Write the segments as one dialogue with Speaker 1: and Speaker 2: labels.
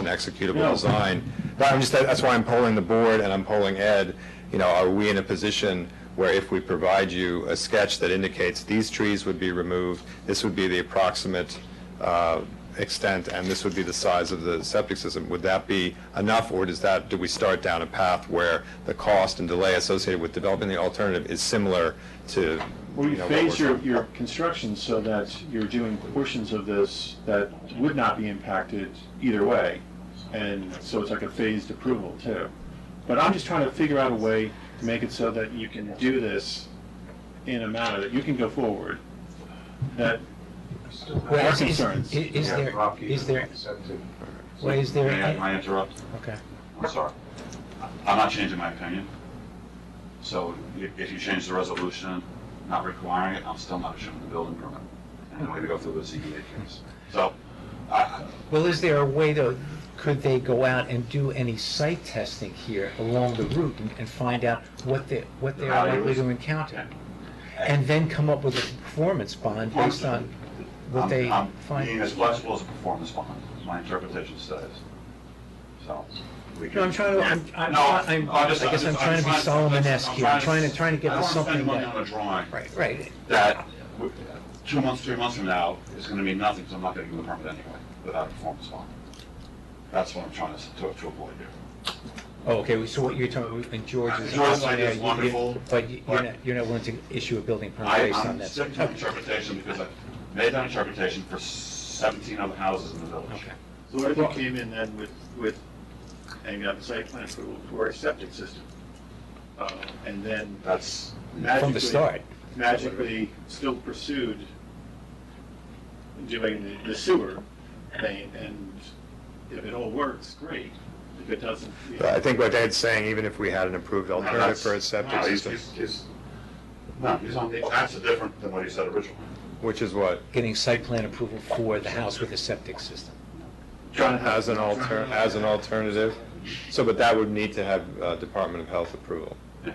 Speaker 1: an executable design. But I'm just, that- that's why I'm polling the board and I'm polling Ed, you know, are we in a position where if we provide you a sketch that indicates these trees would be removed, this would be the approximate uh, extent, and this would be the size of the septic system, would that be enough, or does that, do we start down a path where the cost and delay associated with developing the alternative is similar to,
Speaker 2: Well,
Speaker 1: you
Speaker 2: you
Speaker 1: know, what
Speaker 2: phase
Speaker 1: we're-
Speaker 2: your, your construction so that you're doing portions of this that would not be impacted either way. And so it's like a phased approval too. But I'm just trying to figure out a way to make it so that you can do this in a manner that you can go forward. That,
Speaker 3: Well,
Speaker 2: Our
Speaker 3: is- is-
Speaker 2: concerns.
Speaker 3: i- Is
Speaker 4: Yeah,
Speaker 3: there,
Speaker 4: Rob, you
Speaker 3: is
Speaker 4: can
Speaker 3: there,
Speaker 4: accept it.
Speaker 3: well, is there?
Speaker 5: May I- may I interrupt?
Speaker 3: Okay.
Speaker 5: I'm sorry. I'm not changing my opinion. So i- if you change the resolution, not requiring it, I'm still not issuing the building permit. And we have to go through the ZBA case. So I- I,
Speaker 3: Well, is there a way to, could they go out and do any site testing here along the route and- and find out what they, what they are likely to encounter? And then come up with a performance bond based on what
Speaker 5: I'm-
Speaker 3: they
Speaker 5: I'm being
Speaker 3: find?
Speaker 5: as flexible as a performance bond, my interpretation says. So. we
Speaker 3: No, I'm
Speaker 5: can-
Speaker 3: trying to, I'm, I'm,
Speaker 5: No,
Speaker 3: I'm-
Speaker 5: I'm
Speaker 3: I
Speaker 5: just-
Speaker 3: guess I'm
Speaker 5: just-
Speaker 3: trying to be Solomon-esque here, I'm trying to, trying to get to
Speaker 5: I don't wanna
Speaker 3: something
Speaker 5: spend money on
Speaker 3: that,
Speaker 5: a drawing.
Speaker 3: right, right.
Speaker 5: that w- two months, three months from now is going to mean nothing because I'm not going to give the permit anyway without a performance bond. That's what I'm trying to, s- to to avoid here.
Speaker 3: Oh, okay, so what you're talking, and George is.
Speaker 5: George's idea is
Speaker 3: you- you-
Speaker 5: wonderful,
Speaker 3: But you- you're
Speaker 5: but-
Speaker 3: not, you're not willing to issue a building permit
Speaker 5: I,
Speaker 3: based on
Speaker 5: I'm
Speaker 3: that?
Speaker 5: sticking to my interpretation because I made that interpretation for 17 other houses in the village.
Speaker 3: Okay.
Speaker 2: so what if you came in then with, with, and you got the site plan approval for a septic system? Uh, And then
Speaker 5: That's,
Speaker 3: From the
Speaker 2: magically-
Speaker 3: start.
Speaker 2: magically still pursued doing the- the sewer thing, and if it all works, great. If it doesn't, you
Speaker 1: But I
Speaker 2: know,
Speaker 1: think what Ed's saying, even if we had an approved
Speaker 5: No,
Speaker 1: alternative
Speaker 5: that's-
Speaker 1: for a septic
Speaker 5: no, he's-
Speaker 1: system,
Speaker 5: he's- he's- No, he's on, the- that's different than what he said originally.
Speaker 1: which is what,
Speaker 3: Getting site plan approval for the house with a septic system.
Speaker 2: trying to have
Speaker 1: as an alter, as an alternative? So, but that would need to have uh, Department of Health approval.
Speaker 5: Yeah.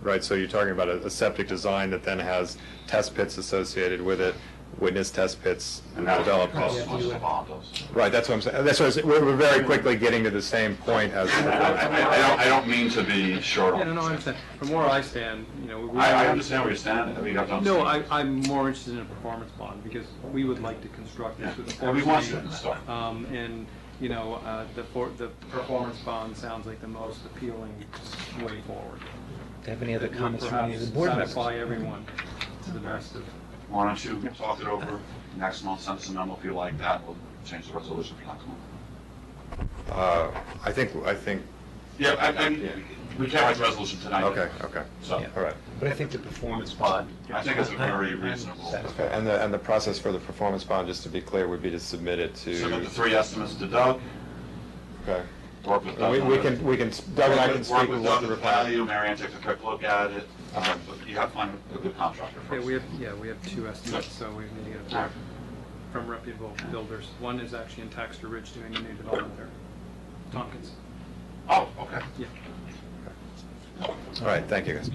Speaker 1: Right, so you're talking about a a septic design that then has test pits associated with it, witness test pits
Speaker 5: And that would
Speaker 1: developed.
Speaker 5: cost as much as the bond does.
Speaker 1: Right, that's what I'm saying, that's what I was, we're, we're very quickly getting to the same point as. uh,
Speaker 5: I, I- I don't, I don't mean to be short on
Speaker 6: Yeah, no, no, I
Speaker 5: this.
Speaker 6: understand. From where I stand, you know, we...
Speaker 5: I, I understand where you're standing, I mean, I've done.
Speaker 6: No, I, I'm more interested in a performance bond, because we would like to construct
Speaker 5: Yeah,
Speaker 6: this with a
Speaker 5: and we want
Speaker 6: force main.
Speaker 5: to install.
Speaker 6: Um, and, you know, uh, the for, the performance bond sounds like the most appealing way forward.
Speaker 3: Do you have any other
Speaker 6: It would
Speaker 3: comments from any of the
Speaker 6: perhaps
Speaker 3: board members?
Speaker 6: Satisfy everyone to the best of...
Speaker 5: Why don't you talk it over next month, send us a memo if you like that, we'll change the resolution for next month.
Speaker 1: Uh, I think, I think,
Speaker 5: Yeah, I, I, we can't write the resolution tonight.
Speaker 1: okay, okay,
Speaker 5: So,
Speaker 3: Yeah.
Speaker 1: all right.
Speaker 3: But I think the performance bond.
Speaker 5: I think it's a very
Speaker 3: I'm- I'm
Speaker 5: reasonable-
Speaker 3: satisfied.
Speaker 1: Okay, And the, and the process for the performance bond, just to be clear, would be to submit it to.
Speaker 5: submit the three estimates to Doug,
Speaker 1: Okay.
Speaker 5: work with Doug.
Speaker 1: We,
Speaker 5: on
Speaker 1: we
Speaker 5: it.
Speaker 1: can, we can, Doug and I can speak
Speaker 5: Work
Speaker 1: with
Speaker 5: with
Speaker 1: what the
Speaker 5: Doug at the
Speaker 1: reply.
Speaker 5: value, Marianne takes a quick look at it, um, but you have to find a good contractor
Speaker 6: Yeah,
Speaker 5: first.
Speaker 6: we have, yeah, we have two estimates, so we need to get a pair from reputable builders. One is actually in Taxter Ridge doing a new development there, Tompkins.
Speaker 5: Oh, okay.
Speaker 6: Yeah.
Speaker 1: All right, thank you guys.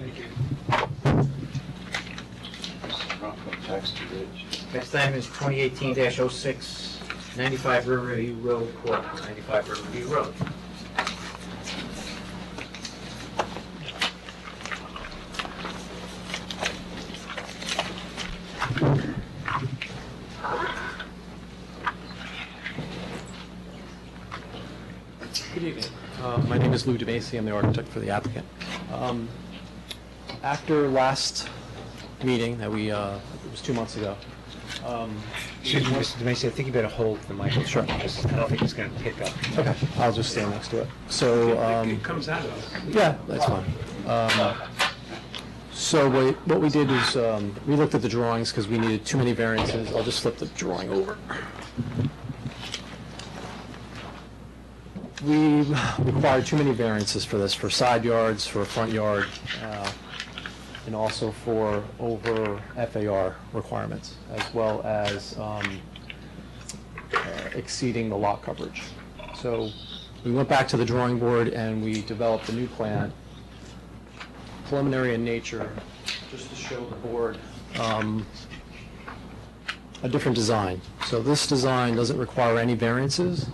Speaker 4: Text to Rich.
Speaker 7: Next item is 2018-06, 95 Riverview Road Court, 95 Riverview Road.
Speaker 8: Good evening. Uh, My name is Lou DeMacy, I'm the architect for the applicant. Um, After last meeting that we, uh, it was two months ago, um,
Speaker 3: Excuse me, Mr. DeMacy, I think you better hold the microphone.
Speaker 8: Sure.
Speaker 3: because I don't think it's going to pick up.
Speaker 8: okay, I'll just stand next to it. So... um,
Speaker 6: comes out of us.
Speaker 8: yeah, that's fine. Um, So what what we did is, um, we looked at the drawings because we needed too many variances. I'll just flip the drawing over. We required too many variances for this, for side yards, for front yard, uh, and also for over FAR requirements, as well as um, uh, exceeding the lot coverage. So we went back to the drawing board and we developed a new plan, preliminary in nature, just to show the board um, a different design. So this design doesn't require any variances.